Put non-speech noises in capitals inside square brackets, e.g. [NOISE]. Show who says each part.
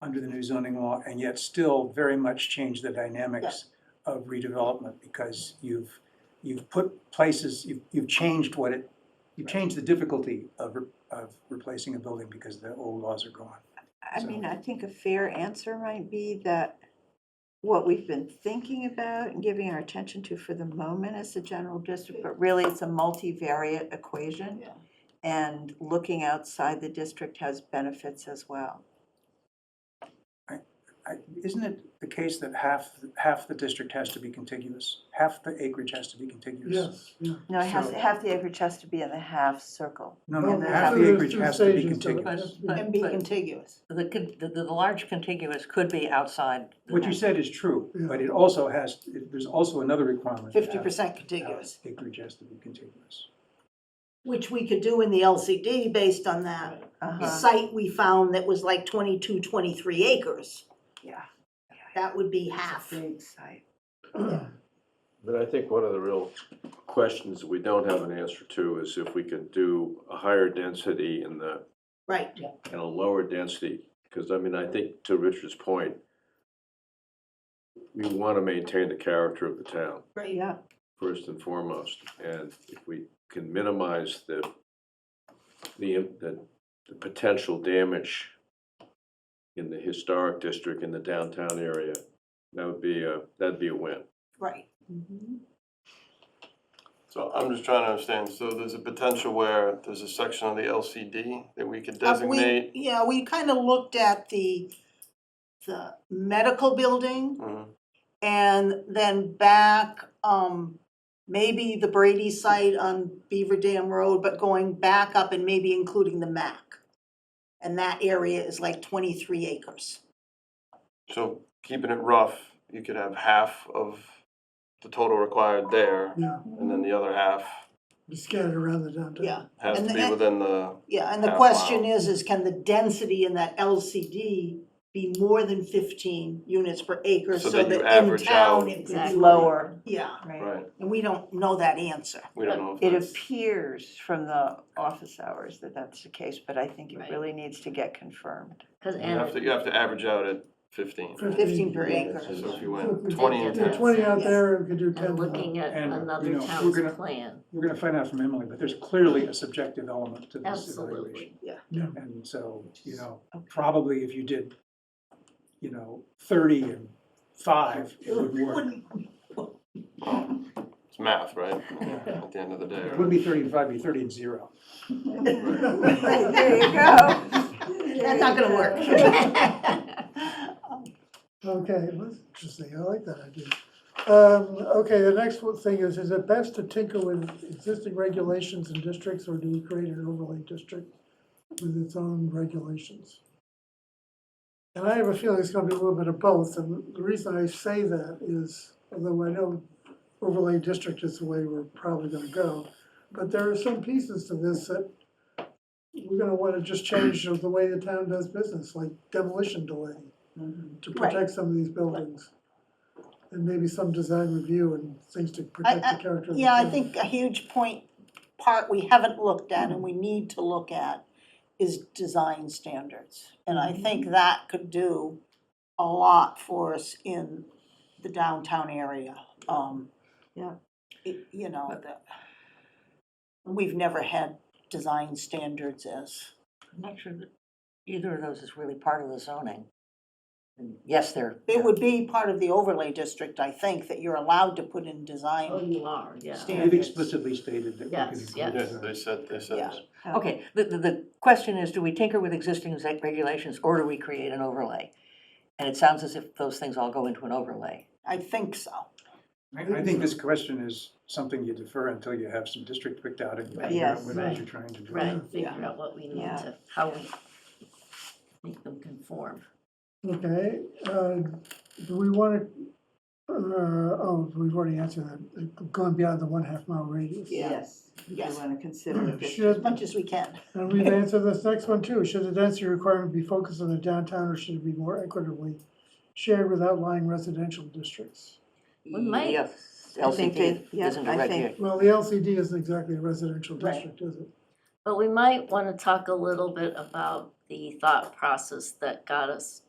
Speaker 1: under the new zoning law and yet still very much change the dynamics of redevelopment because you've, you've put places, you've, you've changed what it, you've changed the difficulty of, re- of replacing a building because the old laws are gone.
Speaker 2: I mean, I think a fair answer might be that what we've been thinking about and giving our attention to for the moment is the general district, but really it's a multivariate equation.
Speaker 3: Yeah.
Speaker 2: And looking outside the district has benefits as well.
Speaker 1: I- Isn't it the case that half, half the district has to be contiguous? Half the acreage has to be contiguous?
Speaker 4: Yes, yeah.
Speaker 2: No, it has,
Speaker 1: So-
Speaker 2: half the acreage has to be in the half circle.
Speaker 1: No,
Speaker 2: Well,
Speaker 1: no,
Speaker 2: but
Speaker 1: half
Speaker 2: after
Speaker 1: the
Speaker 4: there's
Speaker 1: acreage
Speaker 4: two
Speaker 1: has to be
Speaker 4: stages to it.
Speaker 1: contiguous.
Speaker 3: But-
Speaker 5: And be
Speaker 3: but-
Speaker 5: contiguous.
Speaker 3: The, con- the, the large contiguous could be outside. the
Speaker 1: What you
Speaker 3: net.
Speaker 1: said is true, but
Speaker 4: Yeah.
Speaker 1: it also has, it- there's also another requirement. that
Speaker 5: Fifty percent contiguous,
Speaker 1: half Acreage has to be contiguous.
Speaker 5: which we could do in the LCD based on that
Speaker 2: Uh-huh.
Speaker 5: site we found that was like 22, 23 acres.
Speaker 2: Yeah.
Speaker 5: That would be half.
Speaker 2: Big site.
Speaker 6: But I think one of the real questions that we don't have an answer to is if we could do a higher density in the,
Speaker 5: Right,
Speaker 6: and a lower density. Because I mean, I think to Richard's point, we want to maintain the character of the town
Speaker 5: right.
Speaker 2: Yeah,
Speaker 6: first and foremost. And if we can minimize the, the, the the potential damage in the historic district, in the downtown area, that would be a, that'd be a win.
Speaker 5: Right.
Speaker 7: So I'm just trying to understand, so there's a potential where there's a section of the LCD that we could
Speaker 5: Uh, we-
Speaker 7: designate?
Speaker 5: Yeah, we kind of looked at the, the medical building
Speaker 7: Mhm.
Speaker 5: and then back, um, maybe the Brady site on Beaver Dam Road, but going back up and maybe including the MAC. And that area is like twenty-three acres.
Speaker 7: So keeping it rough, you could have half of the total required there,
Speaker 4: Yeah,
Speaker 7: and then the other half
Speaker 4: it's scattered around the downtown.
Speaker 5: Yeah,
Speaker 7: has
Speaker 5: And
Speaker 7: to
Speaker 5: the-
Speaker 7: be within the,
Speaker 5: yeah, and the
Speaker 7: Half
Speaker 5: question
Speaker 7: mile.
Speaker 5: is, is can the density in that LCD be more than fifteen units per acre so
Speaker 7: So
Speaker 5: that
Speaker 7: that you
Speaker 5: in
Speaker 7: average
Speaker 5: town
Speaker 7: out.
Speaker 5: it could be
Speaker 2: it's
Speaker 7: Exactly.
Speaker 2: lower,
Speaker 5: Yeah,
Speaker 2: right?
Speaker 7: right,
Speaker 5: and we don't know that answer.
Speaker 7: we don't know if
Speaker 2: It
Speaker 7: that's.
Speaker 2: appears from the office hours that that's the case, but I think it
Speaker 3: Right.
Speaker 2: really needs to get confirmed.
Speaker 3: Cause
Speaker 7: You have to, you have to average out at fifteen.
Speaker 5: Fifteen per acre.
Speaker 7: So if you
Speaker 4: So if we
Speaker 7: went twenty
Speaker 4: did
Speaker 7: and
Speaker 3: Yeah,
Speaker 7: ten.
Speaker 4: 20 out
Speaker 5: yeah.
Speaker 4: there, we could do 10
Speaker 3: and looking at
Speaker 1: And, you
Speaker 3: another
Speaker 1: know, we're
Speaker 3: town's
Speaker 1: gonna-
Speaker 3: plan,
Speaker 1: We're gonna find out from Emily, but there's clearly a subjective element to this evaluation.
Speaker 3: [LAUGHS] absolutely.
Speaker 1: And so, you know,
Speaker 2: Okay.
Speaker 1: probably if you did, you know, thirty and five, it would work.
Speaker 7: It's math, right? At the end of the day.
Speaker 1: It
Speaker 7: right?
Speaker 1: wouldn't be thirty and five, it'd be thirty and zero.
Speaker 2: Right, there you go.
Speaker 5: That's not gonna work.
Speaker 4: [LAUGHS] Okay, well, that's interesting, I like that idea. Um, okay, the next one thing is, is it best to tinker with existing regulations and districts, or do we create an overlay district with its own regulations? And I have a feeling it's gonna be a little bit of both, and the reason I say that is, although I know overlay district is the way we're probably gonna go, but there are some pieces to this that we're gonna wanna just change of the way the town does business, like demolition delay to
Speaker 5: Right.
Speaker 4: protect some of these buildings. And maybe some design review and things to protect
Speaker 5: I-
Speaker 4: the character of the
Speaker 5: Yeah, I
Speaker 4: building.
Speaker 5: think a huge point, part we haven't looked at and we need to look at is design standards. And I think that could do a lot for us in the downtown area. Um,
Speaker 2: Yeah.
Speaker 5: it- You know, the, we've never had design standards as,
Speaker 3: I'm not sure that either of those is really part of the zoning. And Yes, they're.
Speaker 5: it would be part of the overlay district, I think, that you're allowed to put in
Speaker 3: Oh,
Speaker 5: design.
Speaker 3: you are, yeah.
Speaker 5: Stand-
Speaker 1: They've explicitly stated that we can
Speaker 3: Yes,
Speaker 1: include
Speaker 3: yes.
Speaker 7: Yes,
Speaker 1: that.
Speaker 7: they said, they
Speaker 5: Yeah.
Speaker 7: said.
Speaker 3: Okay, the, the, the question is, do we tinker with existing exec- regulations or do we create an overlay? And it sounds as if those things all go into an overlay.
Speaker 5: I think so.
Speaker 1: I, I think this question is something you defer until you have some district picked out and you figure out
Speaker 2: Yes.
Speaker 1: what it is you're trying to do.
Speaker 3: Figure out what we need
Speaker 2: Yeah.
Speaker 3: to, how we make them conform.
Speaker 4: Okay, uh, do we wanna, uh, oh, we've already answered that, uh, gone beyond the one half mile radius.
Speaker 5: Yeah.
Speaker 2: Yes, we
Speaker 5: Yes.
Speaker 2: want to consider it.
Speaker 5: As
Speaker 4: Should,
Speaker 5: much as we can.
Speaker 4: and we've answered this next one too, should the density requirement be focused on the downtown or should it be more equitably shared with outlying residential districts?
Speaker 3: We might.
Speaker 2: Yes. I think
Speaker 3: LCD
Speaker 2: they- yeah,
Speaker 3: isn't
Speaker 2: I
Speaker 3: a
Speaker 2: think-
Speaker 3: regular,
Speaker 4: Well, the LCD isn't exactly a residential
Speaker 5: Right.
Speaker 4: district, is it?
Speaker 8: But we might wanna talk a little bit about the thought process that got us